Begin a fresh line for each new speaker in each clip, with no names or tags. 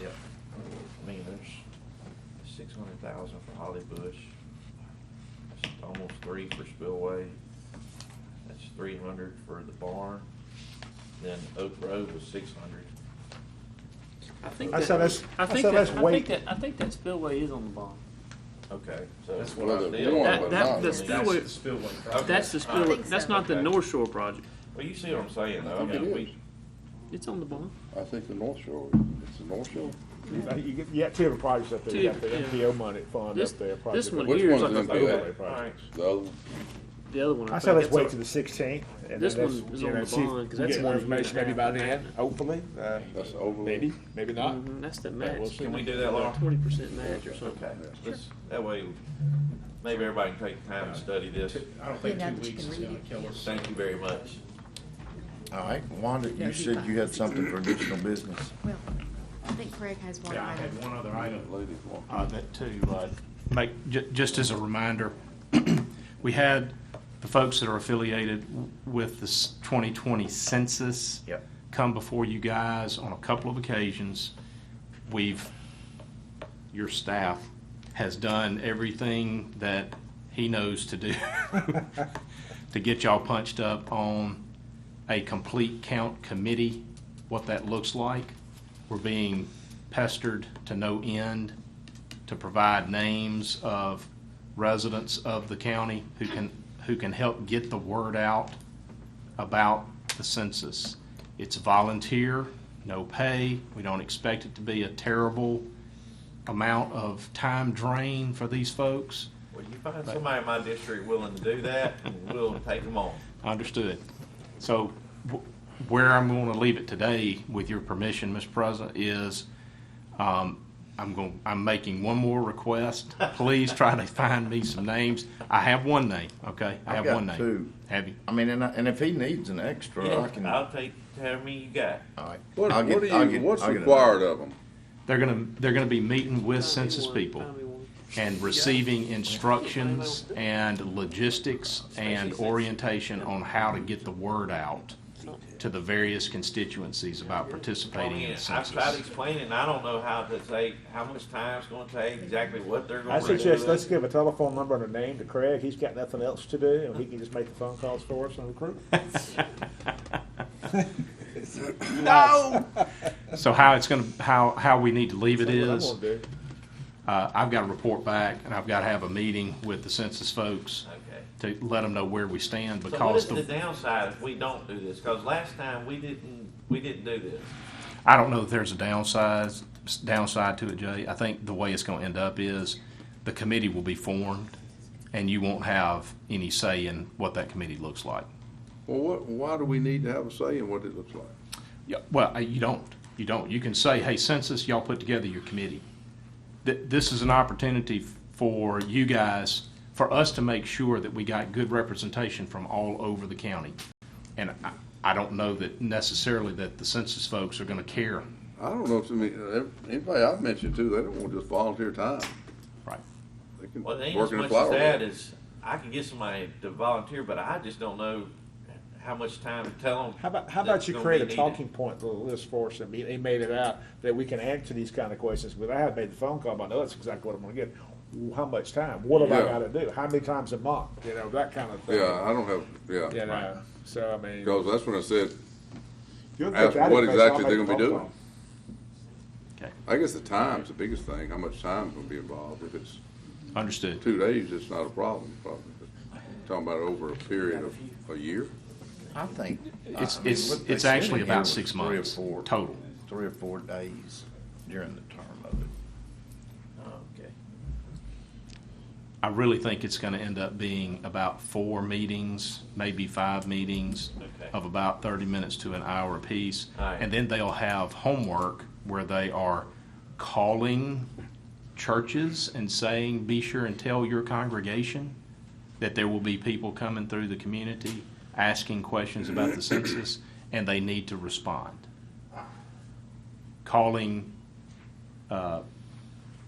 Yep. I mean, there's six hundred thousand for Holly Bush. That's almost three for Spillway. That's three hundred for the barn. Then Oak Road was six hundred.
I think
I
that-
said that's-
I
I
said
think that, I
that's
think
weight.
that, I think that spillway is on the bond.
Okay, so.
That's what I
Well,
was
the-
doing,
that-
but
That, that,
not-
the
I mean,
spillway,
That's the spillway.
Okay.
that's the
All right.
spillway, that's not the
Okay.
North Shore project.
Well, you see what I'm saying, though. I
I think
mean,
it
we-
It's on the bond.
I think the North Shore, it's the North Shore.
You- Uh, You get, you got two different projects up there, you got the
Two, yeah.
MPO money fund
This-
up there.
this
project.
one
Which
Here's
one's
like a
in
Okay,
Fayette?
all right.
The other one?
The other one, I
I said
think.
let's
it's
wait
on-
till the sixteenth. and
This
then
one
that's-
is
you
on
know,
the
see if
bond,
we
'cause
can
that's
get
what
more
we
information
have
maybe by
right
then,
now.
hopefully, uh,
That's the overlay.
maybe, maybe not.
Mhm, That's the
we'll
match.
see.
Can we do that, Laura?
Twenty percent match or something.
Okay, let's, that way, maybe everybody can take time and study this.
I don't
Yeah,
think
now
two
that you
weeks
can
is
read
gonna
it.
kill us.
Thank you very much.
All right, Wanda,
No,
you
he
said
fine.
you had something for additional business.
Well, I think Craig has one
Yeah, I
item.
had one other item.
Ladies one.
uh, that to uh, make, ju- just as a reminder, we had the folks that are affiliated w- with this 2020 census
Yep.
come before you guys on a couple of occasions. We've, your staff has done everything that he knows to do to get y'all punched up on a complete count committee, what that looks like. We're being pestered to no end to provide names of residents of the county who can, who can help get the word out about the census. It's volunteer, no pay. We don't expect it to be a terrible amount of time drain for these folks.
Well, you find somebody in my district willing to do that, and we'll take them on.
Understood. So wh- where I'm going to leave it today, with your permission, Mr. President, is um, I'm going, I'm making one more request. Please try to find me some names. I have one name, okay? I
I've
have
got
one name.
two.
Have you?
I mean, and, I- and if he needs an extra, I can, all
I'll take, how many you got?
right.
What,
I'll get-
what do
I'll
you,
get-
what's
I'll get a-
required of them?
They're going to, they're going to be meeting with census
Find me one,
people
find me one.
and receiving instructions and logistics and orientation on how to get the word out to the various constituencies about participating in the
I
census.
tried explaining, I don't know how to say, how much time it's gonna take, exactly what they're
I
gonna do.
suggest let's give a telephone number and a name to Craig, he's got nothing else to do, and he can just make the phone calls for us and recruit.
So how it's gonna, how, how we need to leave it
That's what I'm
is,
gonna do.
uh, I've gotta report back and I've gotta have a meeting with the census folks
Okay.
to let them know where we stand
So what
because
is the
the,
downside if we don't do this? Cause last time we didn't, we didn't do this.
I don't know if there's a downside, downside to it, Jay. I think the way it's gonna end up is the committee will be formed and you won't have any say in what that committee looks like.
Well, what, why do we need to have a say in what it looks like?
Yeah, well, uh, you don't, you don't. You can say, hey, census, y'all put together your committee. Th- this is an opportunity f- for you guys, for us to make sure that we got good representation from all over the county. And I, I don't know that necessarily that the census folks are gonna care.
I don't know if, any- uh, anybody I've mentioned to, they don't want just volunteer time.
Right.
They can
Well, it ain't
work
as
in a
much
flower.
as that
bed.
is, I can get somebody to volunteer, but I just don't know how much time to tell them.
How about, how about you create a talking point little list for us and be, they made it out that we can answer these kind of questions, but I have made the phone call, but I know that's exactly what I'm gonna get. How much time? What have I
Yeah.
gotta do? How many times a month? You know, that kind of thing.
Yeah, I don't have, yeah,
You know, so I mean.
because that's when I said,
you'll get
ask
that
what
information,
exactly
I'll
they're
make
gonna be
the phone
doing.
call.
I guess the time's the biggest thing, how much time's gonna be involved. If it's
Understood.
two days, it's not a problem, probably. But Talking about over a period of a year?
I think.
It's,
I mean,
it's,
what they
it's
said
actually
in
about
here
six
was three or
months
four-
total.
Three or four days during the term of it.
Okay.
I really think it's gonna end up being about four meetings, maybe five meetings
Okay.
of about thirty minutes to an hour apiece.
Alright.
And then they'll have homework where they are calling churches and saying, be sure and tell your congregation that there will be people coming through the community asking questions about the census, and they need to respond. Calling, uh,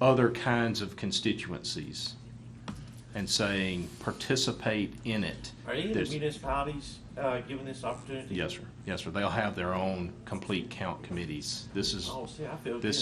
other kinds of constituencies and saying, participate in it.
Are any of the
There's-
municipalities, uh, given this opportunity?
Yes, sir. Yes, sir. They'll have their own complete count committees. This is,
Oh, see, I feel good.
this